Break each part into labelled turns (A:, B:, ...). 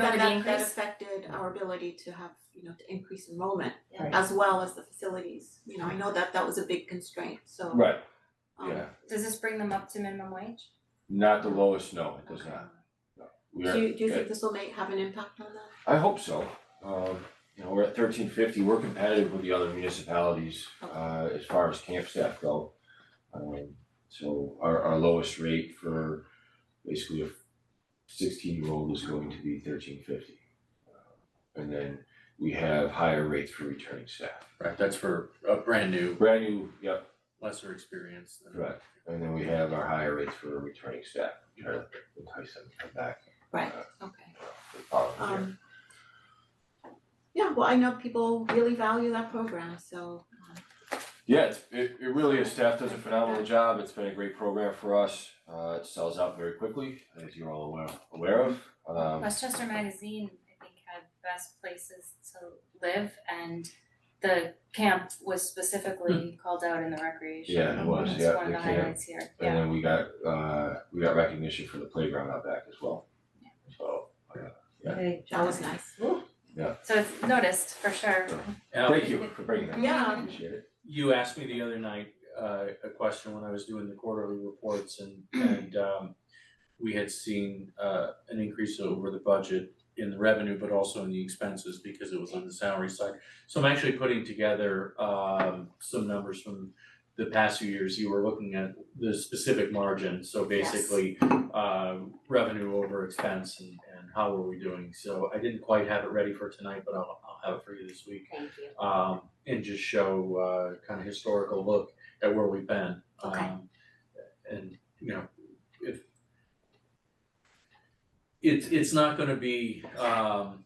A: then
B: Longevity
A: that that
B: increase.
A: affected our ability to have, you know, to increase enrollment
B: Yeah.
A: as well as the facilities, you know, I know that that was a big constraint, so
C: Right,
A: um
C: yeah,
B: Does this bring them up to minimum wage?
C: not the lowest, no, it does
A: okay.
C: not. We
A: Do
C: are,
A: you do you think this will make have an impact on that?
C: I hope so, um, you know, we're at thirteen fifty, we're competitive with the other municipalities, uh, as far as camp staff go. Um, so our, our lowest rate for basically a sixteen-year-old is going to be thirteen fifty. Uh, And then we have higher rates for returning staff,
D: Right, that's for a brand new,
C: brand new, yep,
D: lesser experience than.
C: Correct, and then we have our higher rates for returning staff, try to entice them to come back
A: Right, okay.
C: the following year.
A: Um yeah, well, I know people really value that program, so um
C: Yeah, it's, it, it really is, staff does a phenomenal job, it's been a great program for us, uh, it sells out very quickly, as you're all aware, aware of. Um,
B: Westchester Magazine, I think, had best places to live and the camp was specifically called out in the recreation.
C: Hmm. yeah, it was,
B: That's
C: yeah,
B: one of
C: the
B: the
C: camp,
B: highlights here,
C: and
B: yeah.
C: then we got, uh, we got recognition for the playground out back as well. So, Yeah.
E: Hey,
A: that was nice.
B: So it's noticed for sure.
D: Now,
C: thank you for bringing that,
A: Yeah.
C: appreciate it.
D: you asked me the other night, uh, a question when I was doing the quarterly reports and, and, um, we had seen, uh, an increase over the budget in the revenue, but also in the expenses because it was on the salary side. So I'm actually putting together, um, some numbers from the past few years. You were looking at the specific margin, so
A: Yes.
D: basically, uh, revenue over expense and, and how were we doing? So I didn't quite have it ready for tonight, but I'll, I'll have it for you this week
E: Thank you.
D: um and just show uh kind of historical look at where we've been.
A: Okay.
D: Um, And, you know, if it's it's not gonna be um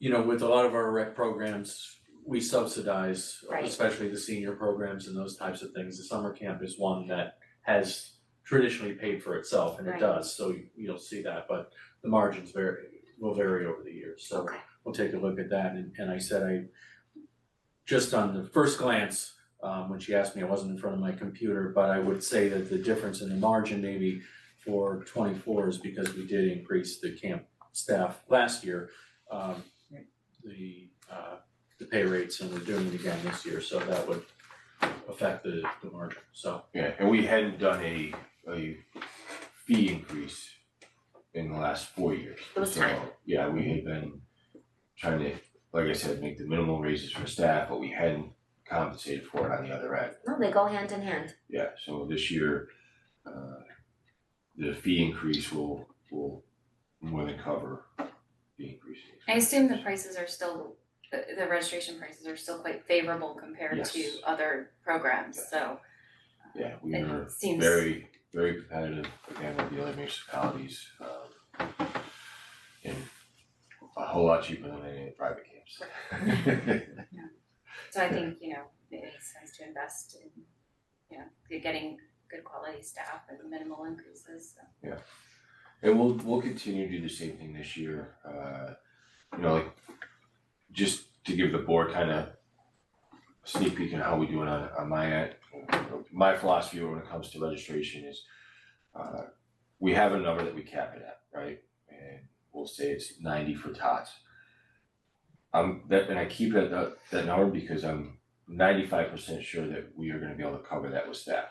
D: you know, with a lot of our rec programs, we subsidize,
E: Right.
D: especially the senior programs and those types of things. The summer camp is one that has traditionally paid for itself and it
E: Right.
D: does, so you'll see that, but the margins vary will vary over the years, so
A: Okay.
D: we'll take a look at that, and and I said I just on the first glance, um when she asked me, I wasn't in front of my computer, but I would say that the difference in the margin maybe for twenty four is because we did increase the camp staff last year, um the uh the pay rates, and we're doing it again this year, so that would affect the the margin, so
C: Yeah, and we hadn't done a, a fee increase in the last four years.
E: It was
C: So,
E: time.
C: Yeah, we had been trying to, like I said, make the minimal raises for staff, but we hadn't compensated for it on the other end.
E: No, they go hand in hand.
C: Yeah, so this year, uh, the fee increase will, will more than cover the increase. in
B: I assume the prices are still, the the registration prices are still quite favorable compared
C: Yes.
B: to other programs, so
C: expenses. Yeah, we were
B: it seems.
C: very, very competitive again with the other municipalities, um, and a whole lot cheaper than any of the private camps.
B: So I think, you know, it makes sense to invest in, you know, you're getting good quality staff and minimal increases, so.
C: And we'll, we'll continue to do the same thing this year, uh, you know, like, just to give the board kind of sneak peek on how we do it on, on my end. My philosophy when it comes to registration is, uh, we have a number that we cap it at, right? And we'll say it's ninety for tots. Um, that, and I keep it at that, that number because I'm ninety-five percent sure that we are gonna be able to cover that with staff,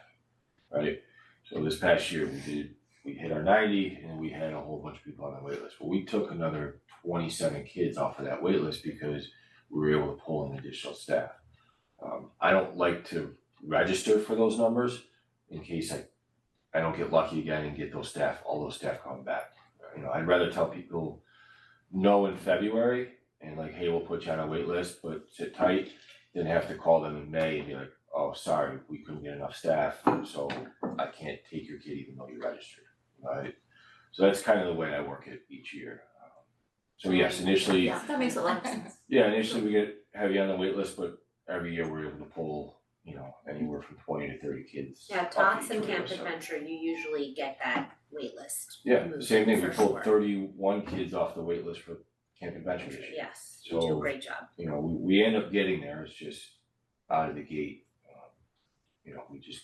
C: right? So this past year, we did we hit our ninety and we had a whole bunch of people on the wait list. Well, we took another twenty-seven kids off of that wait list because we were able to pull in additional staff. Um, I don't like to register for those numbers in case I, I don't get lucky again and get those staff, all those staff coming back. You know, I'd rather tell people no in February and like, hey, we'll put you on a wait list, but sit tight. Then have to call them in May and be like, oh, sorry, we couldn't get enough staff, so I can't take your kid even though you registered, right? So that's kind of the way I work it each year. Um, So yes, initially,
A: Yeah, that makes a lot of sense.
C: yeah, initially we get heavy on the wait list, but every year we're able to pull, you know, anywhere from twenty to thirty kids.
E: Yeah,
C: off
E: Tots
C: each
E: and
C: wait
E: Camp
C: list, so-
E: Adventure, you usually get that waitlist.
C: Yeah, same thing, we
E: For
C: pulled
E: sure.
C: thirty-one kids off the wait list for Camp Adventure this year.
E: Yes, you do
C: So-
E: a great job.
C: You know, we, we end up getting there, it's just out of the gate. um, You know, we just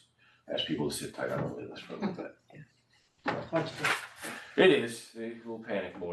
C: ask people to sit tight on the wait list for a little bit. It is, they will panic mode